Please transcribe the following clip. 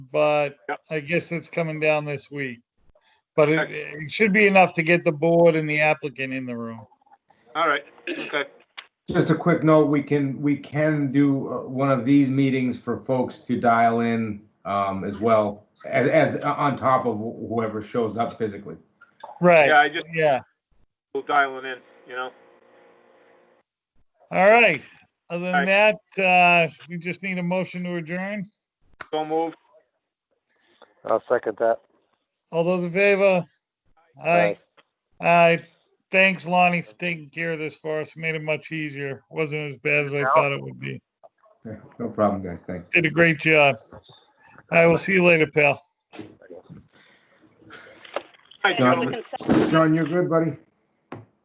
but Yep. I guess it's coming down this week. But it, it should be enough to get the board and the applicant in the room. All right, okay. Just a quick note, we can, we can do uh, one of these meetings for folks to dial in um, as well, as, as uh, on top of wh- whoever shows up physically. Yeah, Right, I just yeah. was dialing in, you know? All right. Other than All that, uh, we just need a motion to adjourn. So moved. I'll second that. All those in favor? Aye. Aye. Thanks, Lonnie, for taking care of this for us. Made it much easier. Wasn't as bad as I thought it would be. Yeah, No problem, guys, thanks. Did a great job. I will see you later, pal. Hi, John. gentlemen. John, you're good, buddy?